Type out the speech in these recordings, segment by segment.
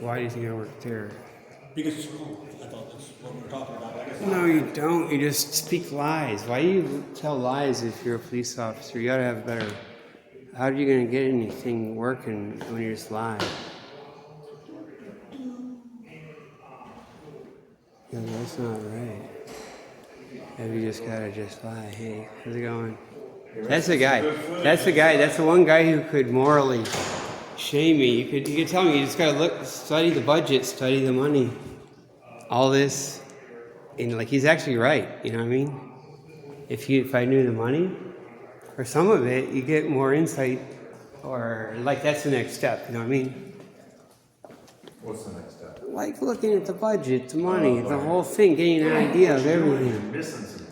Why do you think I work there? Because it's cool. I thought that's what we were talking about. I guess No, you don't. You just speak lies. Why do you tell lies if you're a police officer? You gotta have better. How are you gonna get anything working when you just lie? No, that's not right. Have you just gotta just lie? Hey, how's it going? That's the guy. That's the guy. That's the one guy who could morally shame me. You could you could tell me. You just gotta look, study the budget, study the money, all this and like he's actually right. You know what I mean? If you if I knew the money or some of it, you get more insight, or like that's the next step. You know what I mean? What's the next step? Like looking at the budget, the money, the whole thing, getting an idea of everything. You're missing some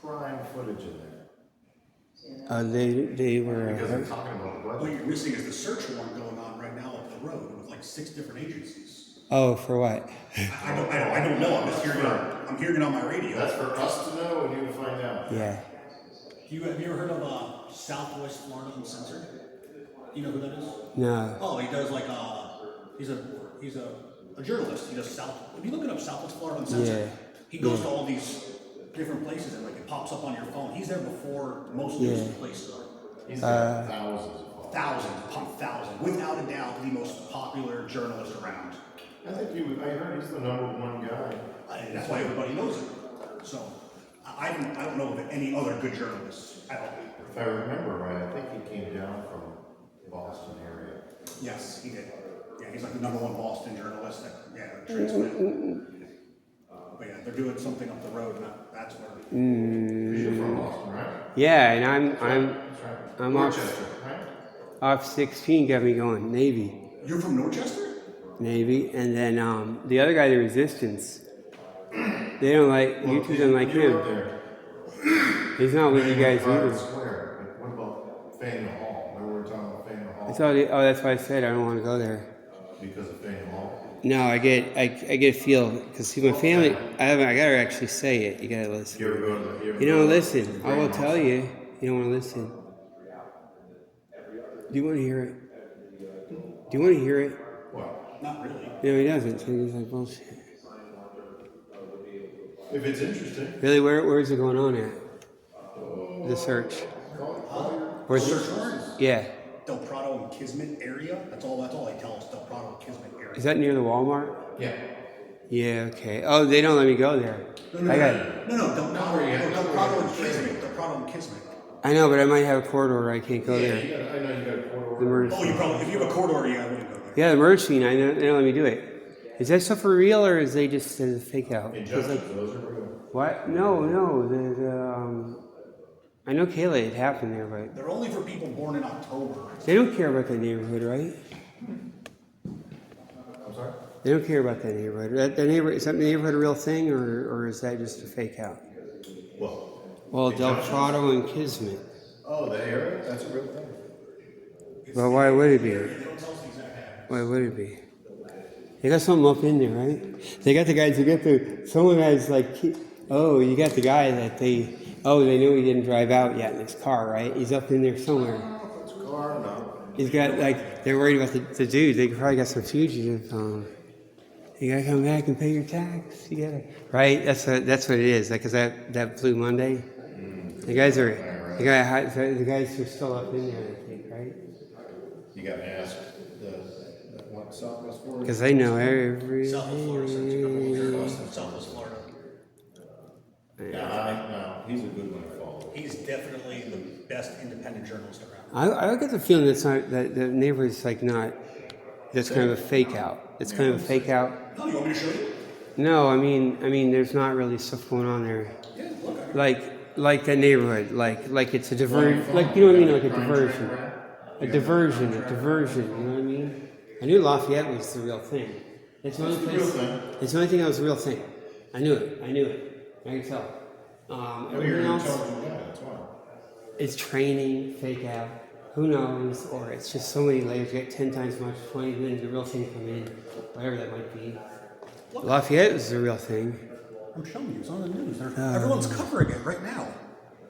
prime footage in there. Uh, they they were. Because they're talking about what budget. you're missing is the search warrant going on right now up the road with like six different agencies. Oh, for what? I I don't, I don't, I don't know. I'm just hearing it. on- I'm hearing it on my radio. That's for us to know and you to find out. Yeah. Do you, have you ever heard of uh, Southwest Florida Uncensored? Do you know who that is? No. Oh, he does like uh, he's a he's a, a journalist. He does South. If you look it up, Southwest Florida Uncensored. Yeah. He goes to all these different places and like it pops up on your phone. He's there before most news Yeah. places are. He's Uh, got thousands of followers. Thousands upon thousands, without a doubt, the most popular journalist around. I think you, I heard he's the number one guy. And that's why everybody knows him. So I, I don't I don't know of any other good journalists at all. If I remember right, I think he came down from Boston area. Yes, he did. Yeah, he's like the number one Boston journalist that, yeah, transmitted. But yeah, they're doing something up the road, and that- that's where. 'Cause You're from Boston, right? Yeah, and I'm I'm That's right. I'm off- Rochester, right? off sixteen. Got me going. Navy. You're from Norchester? Navy, and then um, the other guy, the Resistance. They don't like you two don't like You're up him. there. He's not with you guys Private either. Square, like, what about Faneuil Hall? Remember we were talking about Faneuil I Hall? thought, it- oh, that's why I said I don't want to go there. Because of Faneuil Hall? No, I get, I, I get a feel because see, my family. I haven't. I gotta actually say it. You gotta listen. You ever go to the? ever You go don't to the listen. I will Grand tell you. You don't want to listen. Do you want to hear it? Do you want to hear it? Hall? What? Not really. No, he doesn't. So he's like bullshit. If it's interesting. Really, where where is it going on at? The search. Where's Search warrant? Yeah. Del Prado and Kismet area? That's all, that's all they tell us, Del Prado and Kismet Is area. that near the Walmart? Yeah. Yeah, okay. Oh, they don't let me go there. No, no, I got no, no, no, Del Prado, where you no, have- Del not where Prado you and have the trailer. Kismet, Del Prado and Kismet. I know, but I might have a corridor where I can't go Yeah, there. you got, I know you got a court The order. murder Oh, you scene. probably, if you have a court order, yeah, I wouldn't go there. Yeah, the murder scene. I know, they don't let me do it. Is that stuff for real or is they just a fake out? It's like, Injustice, Oh, those are real. what? No, no. The, the, um, I know Kayla, it happened there, but They're only for people born in October. they don't care about that neighborhood, right? I'm sorry? They don't care about that neighborhood. That, that neighbor, is that neighborhood a real thing or, or is that just a fake out? Well. Well, Del Prado and Kismet. Oh, the area, that's a real thing. But why would it be? Why would it be? They got something up in there, right? They got the guys who get the. Someone has like, he- oh, you got the guy that they. Oh, they knew he didn't drive out yet in his car, right? He's up in there somewhere. It's car, no. He's got like they're worried about the, the dude. They probably got some fugitive. Um, you gotta come back and pay your tax. You gotta right. That's what that's what it is. Like 'cause that that Blue Monday. The guys are the guy hi- the guys are still up in there. I think right. You gotta ask the, that one Southwest Florida. Because they know every. Southwest Florida, search, you know, Southwest Florida. Yeah, I, no, he's a good one to follow. He's definitely the best independent journalist around. I, I get the feeling that's not that the neighborhood's like not. That's kind of a fake out. It's kind of a fake out. Oh, you want me to show you? No, I mean, I mean, there's not really stuff going on there. Yeah, look, I- Like, like that neighborhood, like, like it's a diversion. Like you know what I mean? Like a diversion, a diversion, a diversion. You know what I mean? I knew Lafayette was the real thing. It's the only place. thing. It's the only thing that was the real thing. I knew it. I knew it. I could tell. Um, Oh, you're everything an else. intelligent guy, that's why. it's training, fake out, who knows, or it's just so many layers, you get 10 times much, 20, then the real thing come in, whatever that might be. Lafayette is the real thing. I'm showing you, it's on the news. They're- Everyone's covering it right now.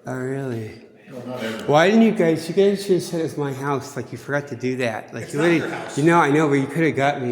Oh, really? No, not everyone. Why didn't you guys, you guys should have said it was my house, like you forgot to do that. Like It's you not would've- your house. You know, I know, but you could have got me